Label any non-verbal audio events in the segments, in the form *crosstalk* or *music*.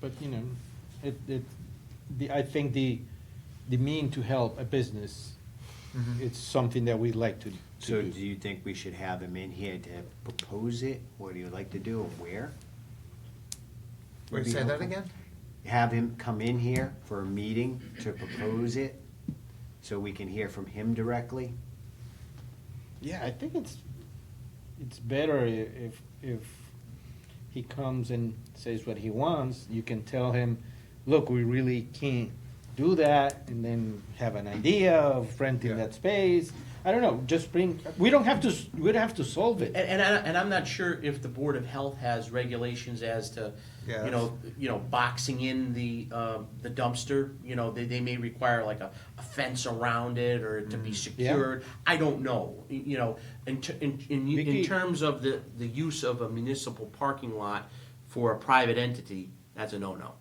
But, you know, it, it, the, I think the, the mean to help a business, it's something that we like to, to So do. do you think we should have him in here to propose it? What do you like to do and where? Wait, say that again? Have him come in here for a meeting to propose it, so we can hear from him directly? Yeah, I think it's, it's better i- if, if he comes and says what he wants, you can tell him, look, we really can't do that, and then have an idea of renting Yeah. that space. I don't know, just bring, we don't have to, s- we don't have to solve it. And, and I, and I'm not sure if the Board of Health has regulations as to, Yeah, you know, you know, boxing in the, um, the dumpster, you know, they, they may require like a, a fence around it or to be Mm. Yeah. secured. I don't know, Y- you know, in, ter- in, in, Vicky- in terms of the, the use of a municipal parking lot for a private entity, that's a no-no.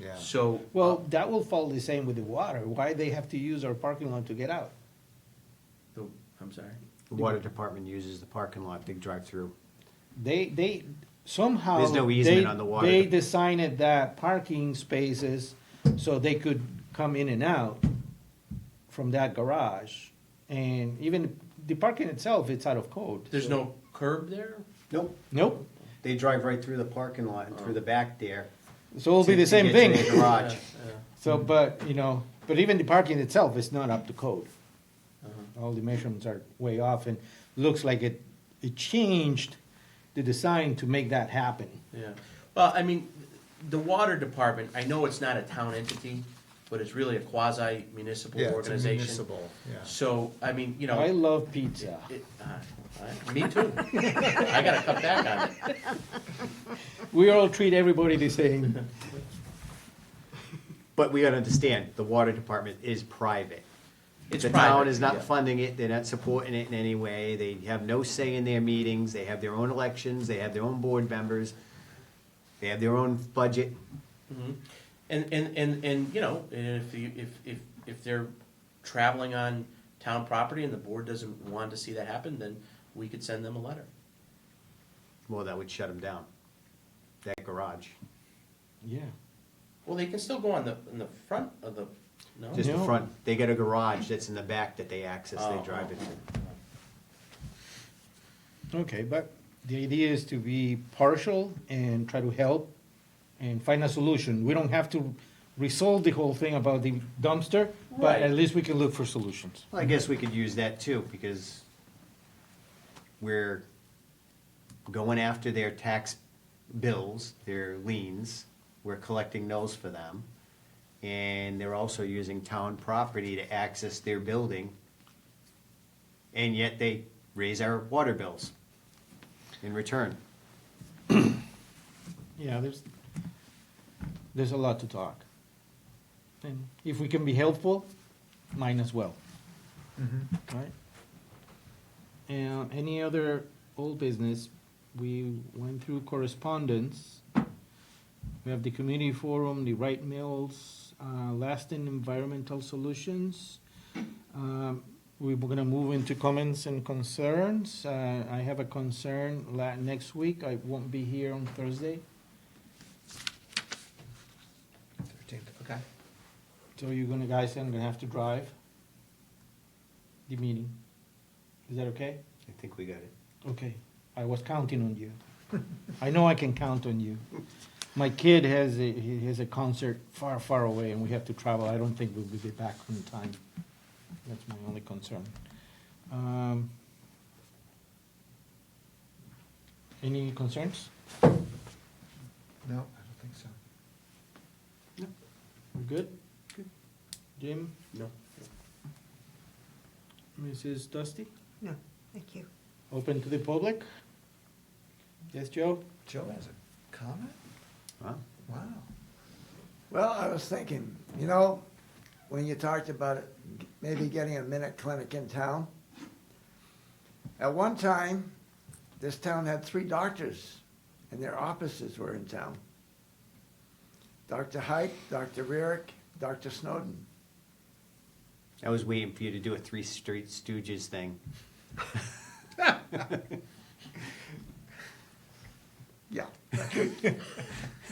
Yeah. So. oh, Well, that will follow the same with the water. Why they have to use our parking lot to get out? the- I'm sorry. The water department uses the parking lot, they drive through. They, they, somehow. There's no easement they- on the water. They designed that parking spaces so they could come in and out from that garage. And even the parking itself, it's out of code. There's so- no curb there? Nope, Nope. they drive right through the parking lot and through the back there. So it'll be to- the to same get to thing. their Garage. Yeah, *laughs* So, but, you know, but even the parking itself is not up to code. yeah, uh-huh. all the measurements are way off and looks like it, it changed the design to make that happen. Yeah, well, I mean, the water department, I know it's not a town entity, but it's really a quasi municipal Yeah, it's a organization. municipal, yeah. So, I mean, you know. I love pizza. it- uh, Me too. I gotta cut back on *laughs* it. We all treat everybody the same. But we gotta understand, the water department is private. It's The town private, is yeah. not funding it, they're not supporting it in any way, they have no say in their meetings, they have their own elections, they have their own board members, they have their own budget. Mm-hmm. And, and, and, and, you know, and if you, if, if, if they're traveling on town property and the board doesn't want to see that happen, then we could send them a letter. Well, that would shut them down, that garage, Yeah. Well, they can still go on the, in the front of the, Oh, no? just the No. front. They got a garage that's in the back that they access, they Oh, drive oh, it through. Okay, but the idea is to be partial and try to help and find a solution. We don't have to resolve the whole thing about the dumpster, but Right. at least we can look for solutions. Well, I guess we could use that too, because we're going after their tax bills, their liens, we're collecting those for them. And they're also using town property to access their building. And yet they raise our water bills in return. Yeah, there's, there's a lot to talk. And if we can be helpful, mine as well. Mhm. Right. And any other old business, we went through correspondence. We have the community forum, the Wright Mills, uh, lasting environmental solutions. Um, we're gonna move into comments and concerns. Uh, I have a concern la- next week. I won't be here on Thursday. Thirteenth, okay. So you're gonna, guys, I'm gonna have to drive the meeting. Is that okay? I think we got it. Okay, I was counting on you. I know I can count on you. My kid has a, he has a concert far, far away and we have to travel. I don't think we'll be back in time. That's my only concern. Um, Any concerns? No, I don't think so. We're good? Jim? No. Mrs. Dusty? No, thank you. Open to the public? Yes, Joe? Joe has a comment? Wow. Wow. Well, I was thinking, you know, when you talked about it, maybe getting a minute clinic in town. At one time, this town had three doctors, and their offices were in town. Dr. Height, Dr. Rarick, Dr. Snowden. I was waiting for you to do a Three Street Stooges thing. *laughs* Yeah.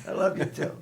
I love you too.